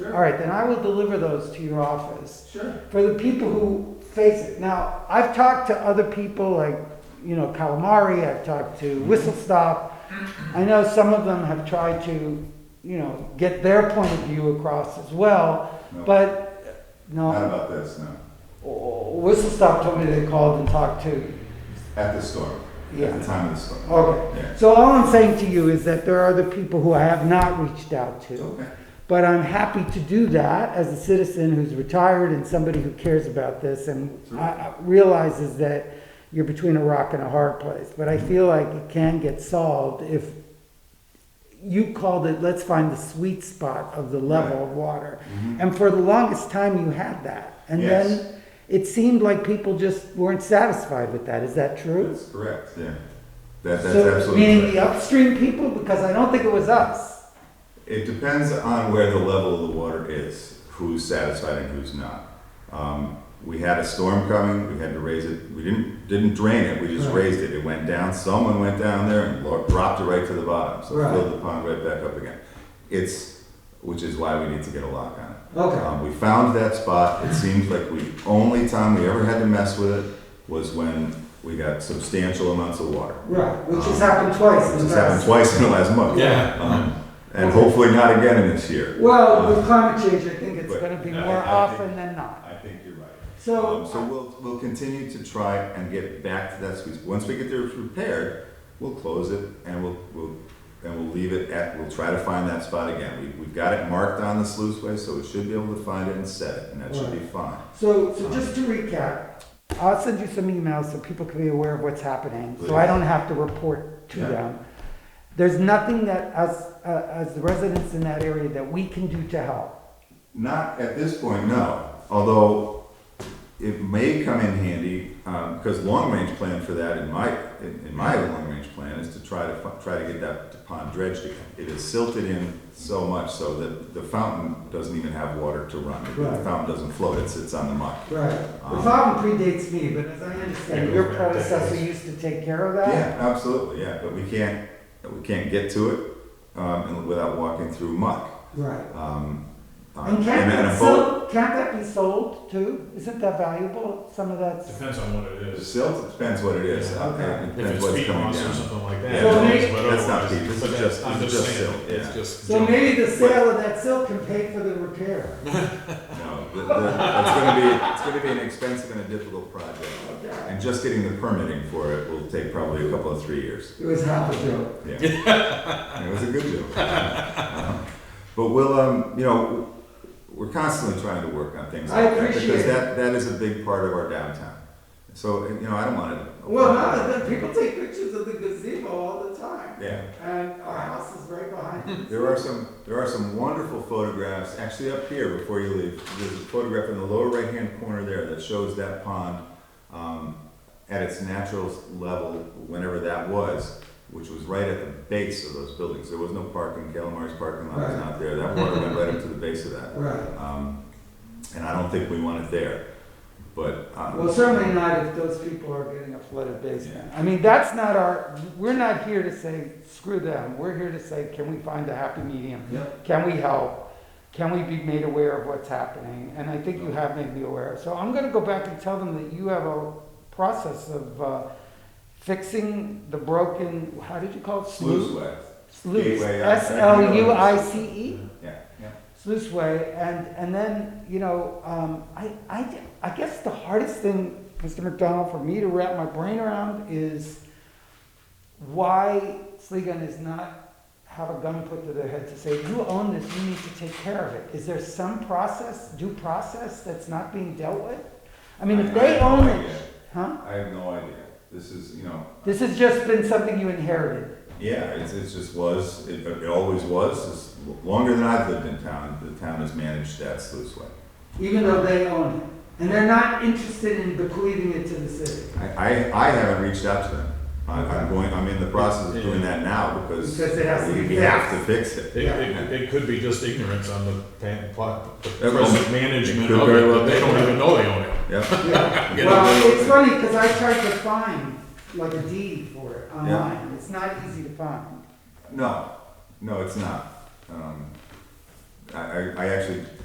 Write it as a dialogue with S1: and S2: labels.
S1: All right, then I will deliver those to your office
S2: Sure.
S1: for the people who face it. Now, I've talked to other people like, you know, Calamari, I've talked to Whistle Stop. I know some of them have tried to, you know, get their point of view across as well,
S2: No.
S1: but
S2: Not
S1: no.
S2: about this, no.
S1: Oh, Whistle Stop told me they called and talked to.
S2: At the storm. At
S1: Yeah. Oh.
S2: the time of the storm.
S1: Okay.
S2: Yeah.
S1: So all I'm saying to you is that there are other people who I have not reached out to.
S2: It's okay.
S1: But I'm happy to do that as a citizen who's retired and somebody who cares about this and I- I realizes that you're between a rock and a hard place. But I feel like it can get solved if you called it, let's find the sweet spot of the level of water. And for the longest time, you had that. And
S2: Mm-hmm. Yes.
S1: then it seemed like people just weren't satisfied with that. Is that true?
S2: That's correct, yeah. That, that's
S1: So, Meaning
S2: absolutely
S1: the
S2: correct.
S1: upstream people, because I don't think it was us.
S2: It depends on where the level of the water is, who's satisfied and who's not. Um, we had a storm coming, we had to raise it, we didn't, didn't drain it, we just
S1: Right.
S2: raised it. It went down, someone went down there and lo- dropped it right to the bottom, so
S1: Right.
S2: it filled the pond right back up again. It's, which is why we need to get a lock on it. Um, we found that spot. It seems like we only time we ever had to mess with it was when we got substantial amounts of water.
S1: Right, which has happened twice in
S2: This
S1: the
S2: has happened
S1: past.
S2: twice in the last month.
S3: Yeah.
S2: Um, and hopefully not again in this year.
S1: Well, with climate change, I think it's
S2: But
S1: gonna be
S2: I-
S1: more
S2: I
S1: often
S2: think-
S1: than not.
S2: I think you're right. Um, so
S1: So,
S2: we'll, we'll continue to try and get back to that squeeze. Once we get there repaired, we'll close it and we'll, we'll, and we'll leave it at, we'll try to find that spot again. We, we've got it marked on the sluiceway, so we should be able to find it and set it, and that should be fine.
S1: so, so just to recap, I'll send you some emails so people can be aware of what's happening, so I
S2: Please.
S1: don't have to report to
S2: Yeah.
S1: them. There's nothing that us, uh, as the residents in that area that we can do to help.
S2: Not at this point, no. Although it may come in handy, because long-range plan for that in my, in in my long-range plan is to try to, fi- try to get that pond dredged again. It is silted in so much so that the fountain doesn't even have water to run. The
S1: Right.
S2: fountain doesn't float, it sits on the muck.
S1: Right. The
S2: Um,
S1: problem predates me, but as I understand, your predecessor used to take care of that?
S2: Yeah, absolutely, yeah, but we can't, we can't get to it um, and without walking through muck.
S1: Right.
S2: Um, uh,
S1: And can't
S2: and
S1: that,
S2: a boat-
S1: so, can't that be sold too? Isn't that valuable, some of that's?
S3: Depends on what it
S2: The
S3: is.
S2: silt, it depends what it is.
S1: Yeah, okay.
S2: Uh, It
S3: If
S2: depends
S3: it's
S2: what's
S3: peat
S2: coming
S3: moss or
S2: down.
S3: something like
S2: Yeah,
S3: that.
S1: So
S3: it's
S1: maybe-
S3: what
S2: That's not
S3: otherwise-
S2: peat, this is
S3: but
S2: just-
S3: I'm
S2: this is just
S3: saying,
S2: silt, yeah.
S3: It's just.
S1: So
S3: junk.
S1: maybe the sale of that silk can pay for the repair.
S2: No, the- the- it's gonna be, it's gonna be an expensive and a difficult project. And just getting the permitting for it will take probably a couple of three years.
S1: It was half a joke.
S2: Yeah. It was a good deal. Uh-huh. But we'll, um, you know, we're constantly trying to work on things
S1: I
S2: like that.
S1: appreciate
S2: Because
S1: it.
S2: that, that is a big part of our downtown. So, you know, I don't want to.
S1: Well, now that people take pictures of the gazebo all the time,
S2: Yeah.
S1: and our house is right behind it.
S2: There are some, there are some wonderful photographs, actually up here before you leave. There's a photograph in the lower right-hand corner there that shows that pond um, at its natural level, whenever that was, which was right at the base of those buildings. There was no parking, Calamari's parking lot was not there. That water went right up to the base of that.
S1: Right.
S2: Um, And I don't think we want it there, but. um,
S1: Well, certainly not if those people are getting a flooded basement. I mean, that's not our, we're not here to say, screw them. We're here to say, can we find a happy medium?
S2: Yep.
S1: Can we help? Can we be made aware of what's happening? And I think you have made me aware. So I'm gonna go back and tell them that you have a process of uh, fixing the broken, how did you call it?
S2: Sluice way.
S1: Sluice,
S2: Gateway, uh,
S1: S L U I C E?
S2: Yeah, yeah.
S1: sluice way, and, and then, you know, um, I, I, I guess the hardest thing, Mr. McDonald, for me to wrap my brain around is why Sligan is not have a gun put to their head to say, you own this, you need to take care of it. Is there some process, due process, that's not being dealt with? I mean, if they
S2: have no
S1: own
S2: idea.
S1: it, huh?
S2: I have no idea. This is, you know,
S1: This has just been something you inherited.
S2: Yeah, it's, it's just was, it, it always was, it's longer than I've lived in town, the town has managed that sluice way.
S1: Even though they own it. And they're not interested in bequeathing it to the city.
S2: I, I, I haven't reached out to them. I, I'm going, I'm in the process of doing that now because
S1: Because it has to be
S2: we have to fix it.
S3: It, it, it could be just ignorance on the pan, plot, the
S2: That was-
S3: present management
S2: could
S3: of
S2: very
S3: it,
S2: well
S3: but they
S2: be.
S3: don't even know they own it.
S2: Yep,
S1: Yeah.
S3: Get
S1: Well,
S2: away
S1: it's funny because I tried to find like a deed for it
S2: Yeah.
S1: online. It's not easy to find.
S2: no, no, it's not. Um, I, I I actually